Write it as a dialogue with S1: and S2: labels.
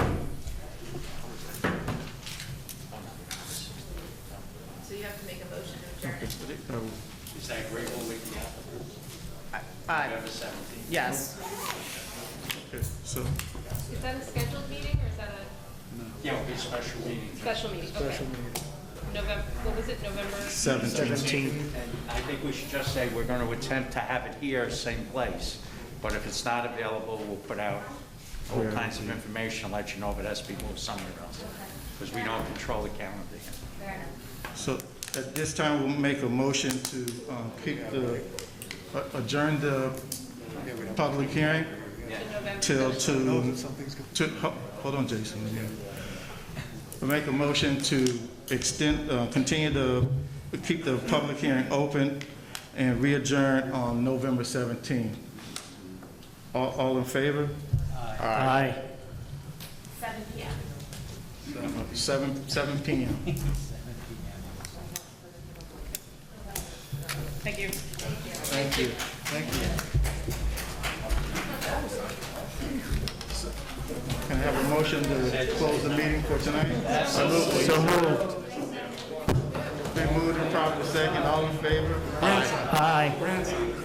S1: So,
S2: Is that agreeable with the applicant?
S3: Uh,
S2: November 17th?
S3: yes,
S1: okay, so,
S4: Is that a scheduled meeting or is that a
S2: Yeah, it'll be a special meeting.
S4: special meeting? Okay.
S1: special meeting.
S4: November, what was it, November?
S1: Seventeenth.
S2: And I think we should just say, we're going to attempt to have it here, same place. But if it's not available, we'll put out all
S1: Yeah.
S2: kinds of information, and let you know if it has to be moved somewhere else. Because we don't control the calendar.
S1: So at this time, we'll make a motion to uh, kick the, uh, adjourn the public hearing till to, to, ho- hold on, Jason. We'll make a motion to extend, uh, continue the, keep the public hearing open and re-adjourn on November 17th. All, all in favor?
S5: Aye.
S4: Seven P M.
S1: Seven, seven PM.
S3: thank you.
S1: Thank you. Thank you. Can I have a motion to close the meeting for tonight?
S5: So moved.
S1: Been moved and properly second, all in favor?
S5: Aye.